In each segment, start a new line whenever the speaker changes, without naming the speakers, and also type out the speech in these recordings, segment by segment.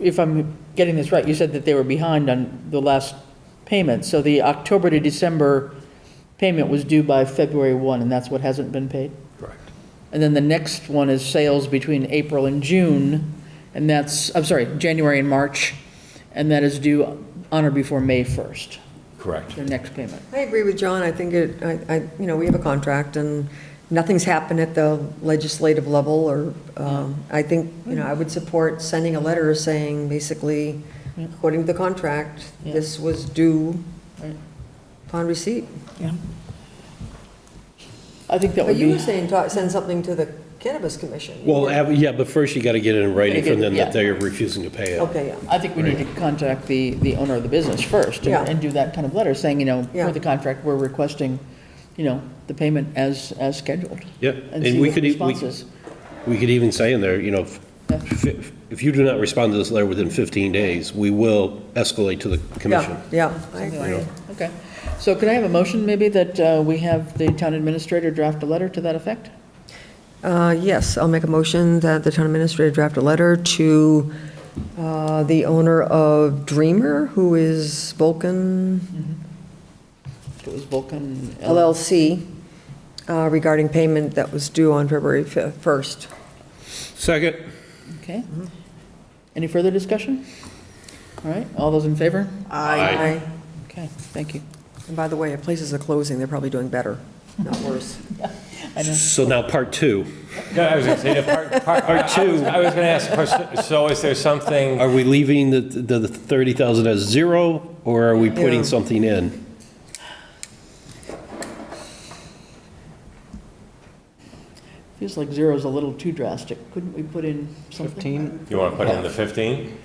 if I'm getting this right, you said that they were behind on the last payment. So the October to December payment was due by February 1, and that's what hasn't been paid?
Correct.
And then the next one is sales between April and June, and that's, I'm sorry, January and March, and that is due on or before May 1st,
Correct.
their next payment.
I agree with John. I think it, I, I, you know, we have a contract and nothing's happened at the legislative level or, um, I think, you know, I would support sending a letter saying basically, according to the contract,
Yeah.
this was due
Right.
upon receipt.
I think that
But
would
you
be,
were saying, talk- send something to the cannabis commission.
Well, av- yeah, but first you got to get it in writing from them
Yeah.
that they're refusing to pay it.
Okay, yeah.
I think we need to contact the, the owner of the business first
Yeah.
and and do that kind of letter saying, you know,
Yeah.
for the contract, we're requesting, you know, the payment as, as scheduled.
Yeah,
And
and
see
we
what the
could, e- we
response is.
we could even say in there, you know,
Yeah.
if if you do not respond to this letter within 15 days, we will escalate to the commission.
Yeah, yeah, I
Something like
agree.
that. Okay. So could I have a motion maybe that uh, we have the town administrator draft a letter to that effect?
Uh, Yes, I'll make a motion that the town administrator draft a letter to uh, the owner of Dreamer, who is Vulcan
It was Vulcan. L-
LLC, uh, regarding payment that was due on February fi- 1st.
Second.
Okay.
Mm-hmm.
Any further discussion? All right, all those in favor?
Aye.
Okay, thank you.
And by the way, if places are closing, they're probably doing better, not worse.
I know.
So now part two.
No, I was going to say, the part, part. Or
two.
I was going to ask a question, so is there something,
Are we leaving the, the the 30,000 as zero or are we putting
Yeah.
something in?
Feels like zero is a little too drastic. Couldn't we put in something? 15?
you want to put in the 15?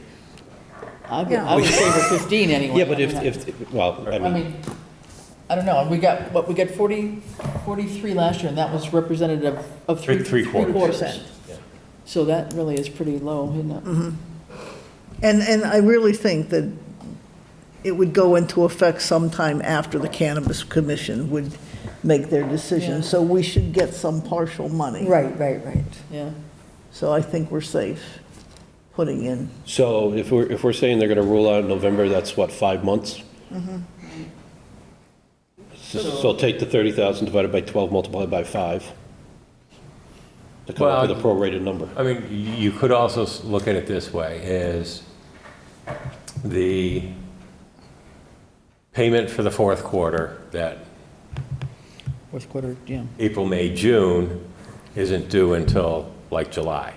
I would, I would favor 15 anyway.
Yeah, but
I
if,
mean,
if, well, I
I
mean,
mean, I don't know, we got, what, we got 40, 43 last year, and that was representative of three.
Three- three quarters.
So that really is pretty low, isn't it?
And, and I really think that it would go into effect sometime after the Cannabis Commission would make their
Yeah.
decision. So we should get some partial money.
Right, right, right.
Yeah.
So I think we're safe putting in.
so if we're, if we're saying they're going to roll out in November, that's what, five months? So so take the 30,000 divided by 12, multiplied by five to come up with a prorated number.
I mean, y- you could also s- look at it this way, is the payment for the fourth quarter, that
Fourth quarter, yeah.
April, May, June, isn't due until like July.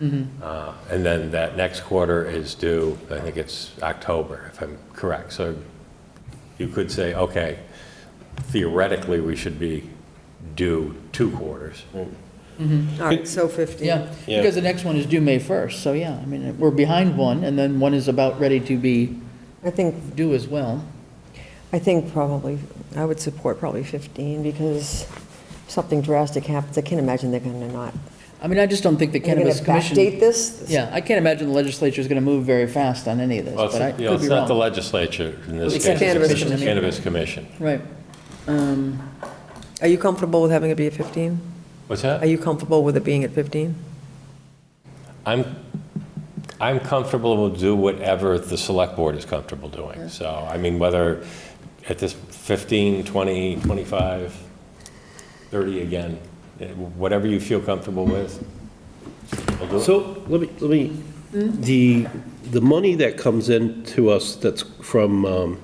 Mm-hmm.
Uh, And then that next quarter is due, I think it's October, if I'm correct. So you could say, okay, theoretically, we should be due two quarters.
All right, so 15.
Yeah,
Yeah.
because the next one is due May 1st, so yeah, I mean, we're behind one, and then one is about ready to be
I think,
due as well.
I think probably, I would support probably 15, because if something drastic happens, I can't imagine they're going to not.
I mean, I just don't think the
They're going
Cannabis
to
Commission,
backdate this?
yeah, I can't imagine the legislature is going to move very fast on any of this,
Well, it's,
but I
you know,
could
it's
be
not the
wrong.
legislature in this
It's
case.
the
Cannabis
it's the
Commission.
Cannabis Commission.
Right. Um,
Are you comfortable with having it be at 15?
What's
Are
that?
you comfortable with it being at 15?
I'm, I'm comfortable to do whatever the select board is comfortable doing. So, I mean, whether at this 15, 20, 25, 30 again, eh, whatever you feel comfortable with. we'll do it.
So let me, let me, the, the money that comes in to us that's from, um,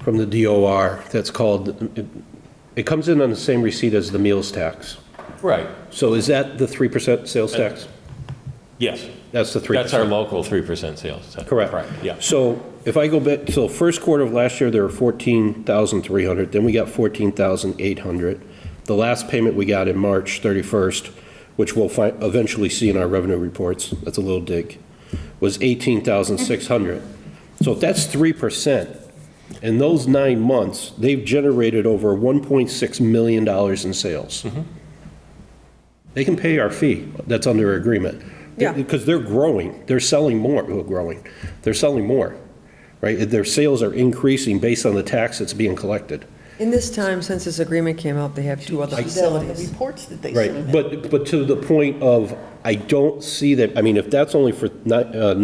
from the DOR, that's called, it- it comes in on the same receipt as the meals tax.
Right,
So is that the 3% sales tax?
yes.
That's the 3%?
That's our local 3% sales tax.
Correct.
Yeah.
So if I go back, so first quarter of last year, there were 14,300, then we got 14,800. The last payment we got in March 31st, which we'll fi- eventually see in our revenue reports, that's a little dig, was 18,600. So if that's 3%, in those nine months, they've generated over $1.6 million in sales. They can pay our fee that's under agreement.
Yeah.
Because they're growing, they're selling more, well, growing, they're selling more, right? Their sales are increasing based on the tax that's being collected.
In this time, since this agreement came up, they have two other
The
facilities.
reports that they
Right,
submit.
but, but to the point of, I don't see that, I mean, if that's onli for ni- uh,